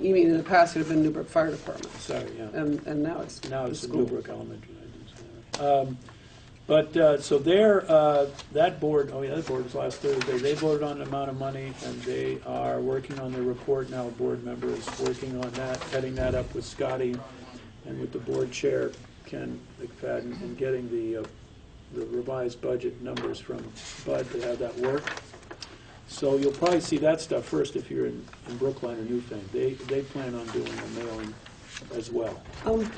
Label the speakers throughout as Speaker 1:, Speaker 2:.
Speaker 1: You mean in the past it had been Newburgh Fire Department,
Speaker 2: Sorry, yeah.
Speaker 1: and, and now it's
Speaker 2: Now it's
Speaker 1: the
Speaker 2: the
Speaker 1: school.
Speaker 2: Newbrook Elementary. I didn't say that. Um, But, uh, so there, uh, that board, oh, yeah, that board was last Thursday. They voted on the amount of money, and they are working on their report now. A board member is working on that, heading that up with Scotty and with the board chair, Ken McFadden, and getting the, uh, the revised budget numbers from Bud to have that work. So you'll probably see that stuff first if you're in in Brookline or Newfane. They, they plan on doing a mailing as well.
Speaker 1: Um,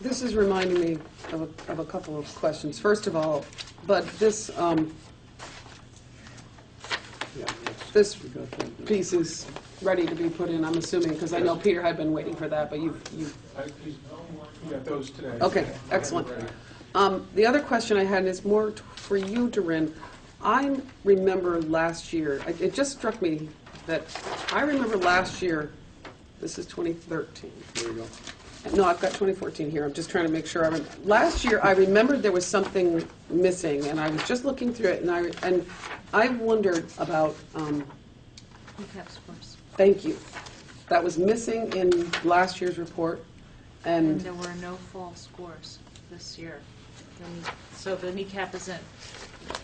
Speaker 1: This is reminding me of a, of a couple of questions. First of all, but this, um,
Speaker 2: Yeah, that's-
Speaker 1: this
Speaker 2: we got that.
Speaker 1: piece is ready to be put in, I'm assuming, because I know Peter had been waiting for that, but you've, you've
Speaker 3: We got those today.
Speaker 1: Okay, excellent. Um, The other question I had is more t- for you, Durin. I remember last year, it- it just struck me that, I remember last year, this is 2013.
Speaker 2: There you go.
Speaker 1: No, I've got 2014 here, I'm just trying to make sure I remember. Last year, I remembered there was something missing, and I was just looking through it, and I, and I wondered about, um,
Speaker 4: Cap scores.
Speaker 1: thank you, that was missing in last year's report,
Speaker 4: And
Speaker 1: and,
Speaker 4: there were no fall scores this year. The knee- So the kneecap isn't,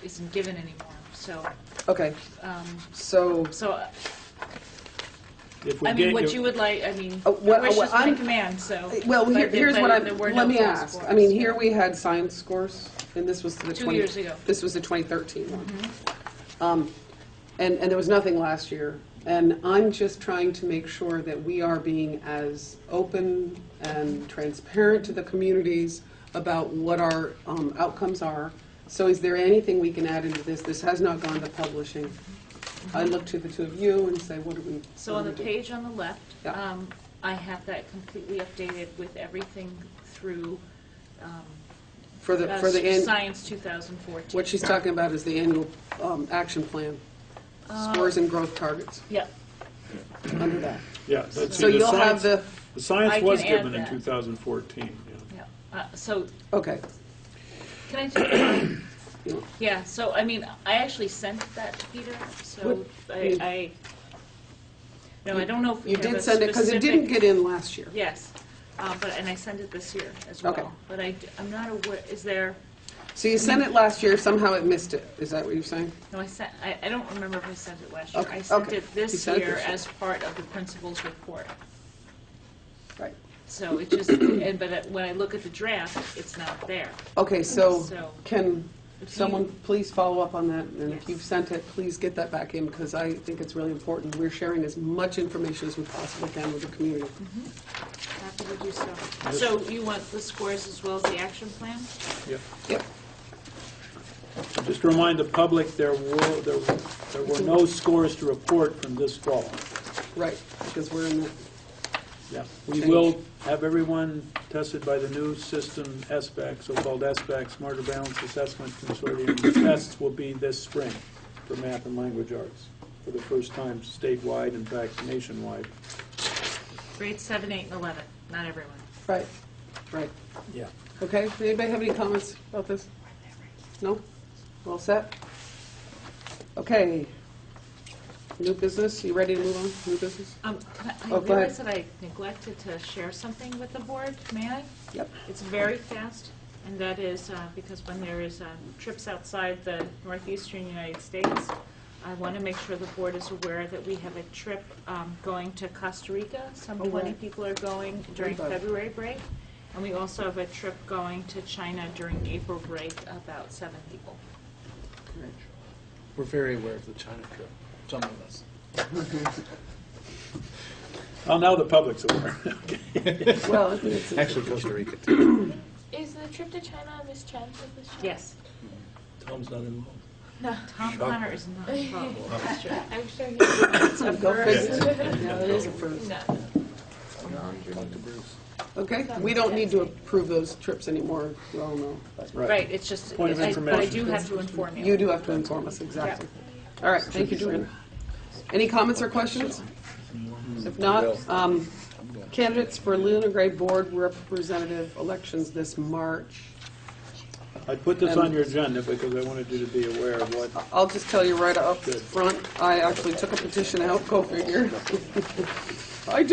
Speaker 4: isn't given anymore, so,
Speaker 1: okay,
Speaker 4: um,
Speaker 1: so...
Speaker 4: so, uh,
Speaker 2: If we
Speaker 4: I mean,
Speaker 2: get
Speaker 4: what
Speaker 2: your-
Speaker 4: you would like, I mean,
Speaker 1: Uh,
Speaker 4: your
Speaker 1: what-
Speaker 4: wish
Speaker 1: what
Speaker 4: is my
Speaker 1: I'm-
Speaker 4: command, so.
Speaker 1: Well,
Speaker 4: but
Speaker 1: here-
Speaker 4: there-
Speaker 1: here's
Speaker 4: but
Speaker 1: what I,
Speaker 4: there were
Speaker 1: let
Speaker 4: no
Speaker 1: me
Speaker 4: fall
Speaker 1: ask. I
Speaker 4: scores.
Speaker 1: mean, here we had science scores, and this was the 20...
Speaker 4: Two years ago. Mm-hmm.
Speaker 1: This was the 2013 one. Um, And, and there was nothing last year. And I'm just trying to make sure that we are being as open and transparent to the communities about what our um, outcomes are. So is there anything we can add into this? This has not gone to publishing. I look to the two of you and say, what do we...
Speaker 4: So
Speaker 1: what
Speaker 4: on
Speaker 1: do
Speaker 4: the
Speaker 1: we do?
Speaker 4: page on the left,
Speaker 1: Yeah.
Speaker 4: um, I have that completely updated with everything through, um,
Speaker 1: For the,
Speaker 4: uh,
Speaker 1: for the, an-
Speaker 4: Science 2014.
Speaker 1: What she's talking about is the annual um, action plan, scores and growth targets,
Speaker 4: Yeah,
Speaker 1: under that.
Speaker 2: Yeah. that's-
Speaker 1: So
Speaker 2: see, the
Speaker 1: you'll have
Speaker 2: science-
Speaker 1: the,
Speaker 2: The
Speaker 4: I
Speaker 2: science
Speaker 4: can
Speaker 2: was
Speaker 4: add
Speaker 2: given in
Speaker 4: that.
Speaker 2: 2014, yeah.
Speaker 4: yeah. Uh, So,
Speaker 1: okay.
Speaker 4: can I just,
Speaker 1: you know,
Speaker 4: Yeah, so, I mean, I actually sent that to Peter, so
Speaker 1: What-
Speaker 4: I, I, no, I don't know if we
Speaker 1: You
Speaker 4: have a
Speaker 1: did send it, because it didn't
Speaker 4: specific-
Speaker 1: get in last year.
Speaker 4: Yes, uh, but, and I sent it this year as
Speaker 1: Okay.
Speaker 4: well. But I, am not aware, is there,
Speaker 1: So you sent it last year, somehow it missed it, is that what you're saying?
Speaker 4: no, I sent, I, I don't remember if I sent it last year.
Speaker 1: Okay,
Speaker 4: I sent
Speaker 1: okay.
Speaker 4: it
Speaker 1: You
Speaker 4: this
Speaker 1: sent it
Speaker 4: year
Speaker 1: this year.
Speaker 4: as part of the principal's report.
Speaker 1: Right.
Speaker 4: So it just, and, but it- when I look at the draft, it's not there.
Speaker 1: Okay, so
Speaker 4: So-
Speaker 1: can someone
Speaker 4: you-
Speaker 1: please follow up on that? And if
Speaker 4: Yes.
Speaker 1: you've sent it, please get that back in, because I think it's really important. We're sharing as much information as we possibly can with the community.
Speaker 4: Mm-hmm. Happy to do so. So you want the scores as well as the action plan?
Speaker 1: Yep.
Speaker 2: Just to remind the public, there were, there were- there were no scores to report from this fall.
Speaker 1: Right, because we're in the,
Speaker 2: Yeah. We
Speaker 1: Change.
Speaker 2: will have everyone tested by the new system, SBAC, so-called SBAC, Smarter Balance Assessment Consortium. The Tests will be this spring for math and language arts, for the first time statewide, in fact, nationwide.
Speaker 4: Grades seven, eight, and 11, not everyone.
Speaker 1: right, right.
Speaker 2: Yeah.
Speaker 1: Okay, does anybody have any comments about this? No? All set? Okay. New business, you ready to move on? New business?
Speaker 4: Um, can I I
Speaker 1: Oh, go
Speaker 4: realize that I neglected to share something with the board, may I?
Speaker 1: Yep.
Speaker 4: It's very fast, and that is uh, because when there is uh, trips outside the northeastern United States, I want to make sure the board is aware that we have a trip um, going to Costa Rica. Some
Speaker 1: Oh,
Speaker 4: 20
Speaker 1: right.
Speaker 4: people are going during
Speaker 1: Remember.
Speaker 4: February break, and we also have a trip going to China during April break, about seven people.
Speaker 5: We're very aware of the China trip, some of us.
Speaker 2: Well, now the public's aware.
Speaker 1: Well, it's-
Speaker 5: Actually, Costa Rica too.
Speaker 6: Is the trip to China Miss Chen's? Is this Chen?
Speaker 4: Yes.
Speaker 5: Tom's not involved.
Speaker 6: No.
Speaker 4: Tom Connor is not involved. That's true.
Speaker 6: I'm sure he's
Speaker 1: it's a go figure. Yeah, it is approved.
Speaker 6: not.
Speaker 5: Talk to Bruce.
Speaker 1: Okay, we don't need to approve those trips anymore, we all know. but
Speaker 4: Right, it's just,
Speaker 2: Point of
Speaker 4: I- but I
Speaker 2: information.
Speaker 4: do have to inform you.
Speaker 1: You do have to inform us, exactly. All right, thank you, Joanne. Any comments or questions? If not, um, candidates for Luna Gray Board Representative elections this March.
Speaker 2: I put this on your agenda because I wanted you to be aware of what
Speaker 1: I'll just tell you right up
Speaker 2: Good.
Speaker 1: front, I actually took a petition out, go figure. I